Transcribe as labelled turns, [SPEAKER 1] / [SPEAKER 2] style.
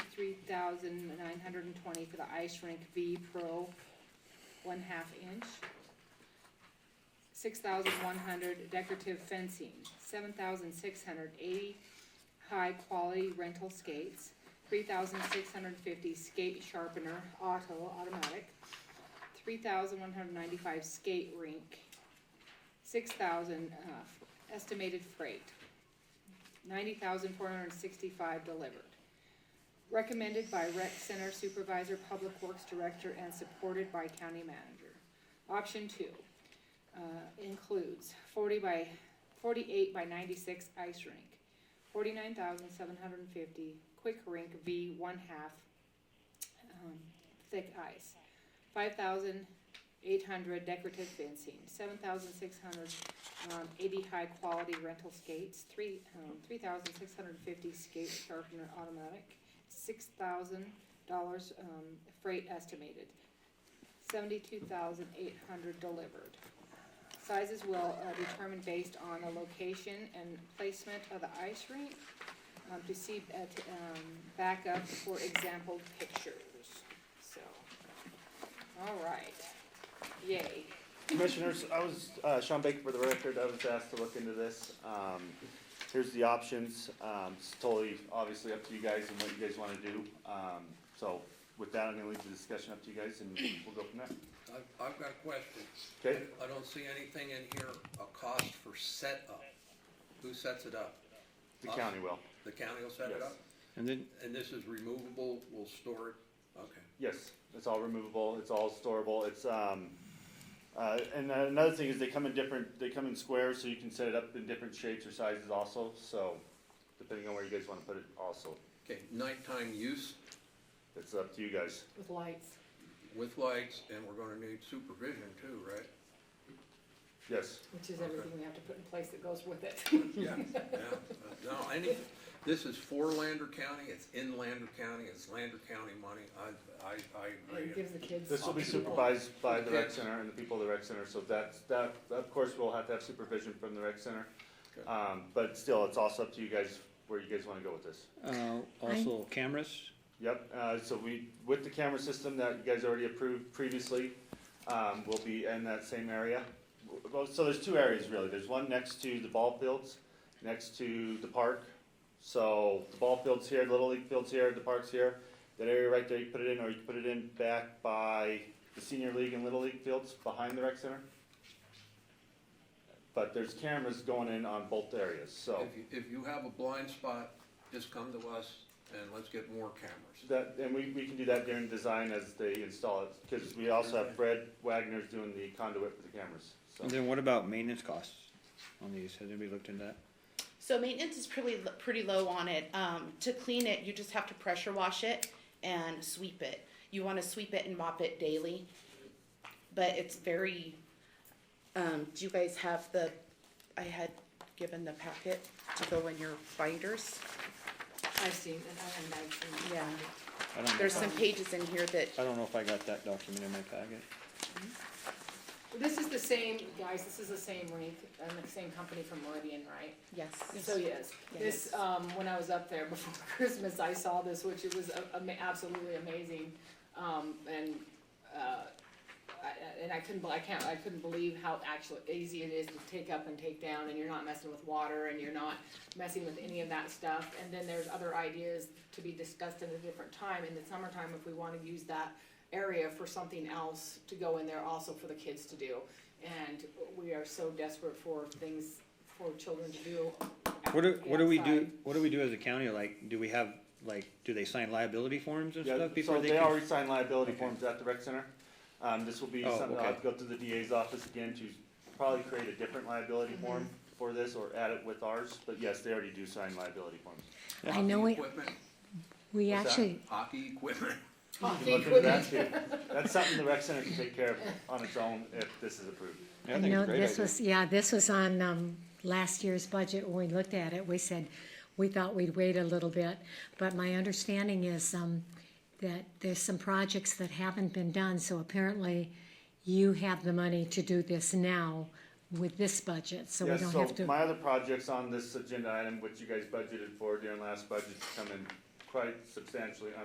[SPEAKER 1] thousand nine hundred and twenty for the ice rink V Pro, one half inch. Six thousand one hundred decorative fencing, seven thousand six hundred eighty high quality rental skates, three thousand six hundred fifty skate sharpener auto automatic, three thousand one hundred ninety-five skate rink, six thousand, uh, estimated freight, ninety thousand four hundred sixty-five delivered. Recommended by rec center supervisor, public works director, and supported by county manager. Option two, uh, includes forty by, forty-eight by ninety-six ice rink, forty-nine thousand seven hundred and fifty quick rink V one-half, um, thick ice, five thousand eight hundred decorative fencing, seven thousand six hundred um, eighty high-quality rental skates, three, um, three thousand six hundred fifty skate sharpener automatic, six thousand dollars, um, freight estimated, seventy-two thousand eight hundred delivered. Sizes will, uh, determine based on the location and placement of the ice rink, um, to see, uh, to, um, backup, for example, pictures, so. All right, yay.
[SPEAKER 2] Commissioners, I was, uh, Sean Baker for the record, I was asked to look into this. Um, here's the options, um, it's totally, obviously up to you guys and what you guys wanna do. Um, so with that, I'm gonna leave the discussion up to you guys and we'll go from there.
[SPEAKER 3] I've, I've got questions.
[SPEAKER 2] Okay.
[SPEAKER 3] I don't see anything in here, a cost for setup. Who sets it up?
[SPEAKER 2] The county will.
[SPEAKER 3] The county will set it
[SPEAKER 2] Yes.
[SPEAKER 3] up?
[SPEAKER 4] And then,
[SPEAKER 3] And this is removable, we'll store it? Okay.
[SPEAKER 2] Yes, it's all removable, it's all storable, it's, um, uh, and then another thing is they come in different, they come in squares, so you can set it up in different shapes or sizes also, so depending on where you guys wanna put it also,
[SPEAKER 3] Okay, nighttime use
[SPEAKER 2] it's up to you guys.
[SPEAKER 1] With lights.
[SPEAKER 3] with lights, and we're gonna need supervision too, right?
[SPEAKER 2] Yes,
[SPEAKER 5] Which is
[SPEAKER 3] Okay.
[SPEAKER 5] everything we have to put in place that goes with it.
[SPEAKER 3] Yeah, yeah. No, any, this is for Lander County, it's in Lander County, it's Lander County money. I, I, I
[SPEAKER 5] And it
[SPEAKER 3] agree.
[SPEAKER 5] gives the kids.
[SPEAKER 2] this will be
[SPEAKER 3] Optional.
[SPEAKER 2] supervised by the rec center and the people of the rec center, so that's, that, of course, we'll have to have supervision from the rec center.
[SPEAKER 3] Okay.
[SPEAKER 2] Um, but still, it's also up to you guys, where you guys wanna go with this.
[SPEAKER 4] uh, also cameras,
[SPEAKER 2] Yep, uh, so we, with the camera system that you guys already approved previously, um, will be in that same area. Well, so there's two areas really, there's one next to the ball fields, next to the park. So the ball field's here, the Little League field's here, the park's here, that area right there, you put it in, or you can put it in back by the senior league and Little League fields, behind the rec center. But there's cameras going in on both areas, so.
[SPEAKER 3] If you, if you have a blind spot, just come to us and let's get more cameras.
[SPEAKER 2] That, and we, we can do that during design as they install it, because we also have Fred Wagner's doing the conduit for the cameras, so.
[SPEAKER 4] and then what about maintenance costs on these, has anybody looked into that?
[SPEAKER 6] So maintenance is pretty pretty low on it. Um, to clean it, you just have to pressure wash it and sweep it. You want to sweep it and mop it daily, but it's very. Um, do you guys have the? I had given the packet to go in your binders.
[SPEAKER 5] I've seen, and I- and I've seen.
[SPEAKER 6] Yeah,
[SPEAKER 4] I don't,
[SPEAKER 6] there's some
[SPEAKER 2] Um,
[SPEAKER 6] pages in here that.
[SPEAKER 4] I don't know if I got that document in my packet.
[SPEAKER 5] This is the same, guys, this is the same rink, and the same company from Meridian, right?
[SPEAKER 6] Yes.
[SPEAKER 5] So, yes, this,
[SPEAKER 6] Yes.
[SPEAKER 5] um, when I was up there before Christmas, I saw this, which it was a- ama- absolutely amazing. Um, and, uh, I, I- and I couldn't, be- I can't, I couldn't believe how actually easy it is to take up and take down, and you're not messing with water, and you're not messing with any of that stuff. And then there's other ideas to be discussed at a different time, in the summertime, if we wanna use that area for something else to go in there also for the kids to do. And we are so desperate for things for children to do.
[SPEAKER 4] What do, what do we do,
[SPEAKER 5] outside.
[SPEAKER 4] what do we do as a county, like, do we have, like, do they sign liability forms and
[SPEAKER 2] Yeah,
[SPEAKER 4] stuff before
[SPEAKER 2] so
[SPEAKER 4] they
[SPEAKER 2] they
[SPEAKER 4] can?
[SPEAKER 2] already signed liability
[SPEAKER 4] Okay.
[SPEAKER 2] forms at the rec center. Um, this will be
[SPEAKER 4] Oh,
[SPEAKER 2] something, I'll have
[SPEAKER 4] okay.
[SPEAKER 2] to go through the DA's office again to probably create a different liability form for this, or add it with ours, but yes, they already do sign liability forms.
[SPEAKER 7] I know
[SPEAKER 3] Hockey
[SPEAKER 7] we,
[SPEAKER 3] Equipment,
[SPEAKER 7] we
[SPEAKER 2] What's that?
[SPEAKER 7] actually,
[SPEAKER 3] hockey equipment.
[SPEAKER 5] Oh,
[SPEAKER 2] You can look into that too. That's something the rec center can take care of on its own if this is approved.
[SPEAKER 4] Yeah,
[SPEAKER 7] I
[SPEAKER 4] think it's
[SPEAKER 7] know
[SPEAKER 4] a great
[SPEAKER 7] this
[SPEAKER 4] idea.
[SPEAKER 7] was, yeah, this was on, um, last year's budget when we looked at it. We said, we thought we'd wait a little bit. But my understanding is, um, that there's some projects that haven't been done, so apparently you have the money to do this now with this budget, so we
[SPEAKER 2] Yes,
[SPEAKER 7] don't
[SPEAKER 2] so
[SPEAKER 7] have to.
[SPEAKER 2] my other projects on this agenda item, which you guys budgeted for during last budget, come in quite substantially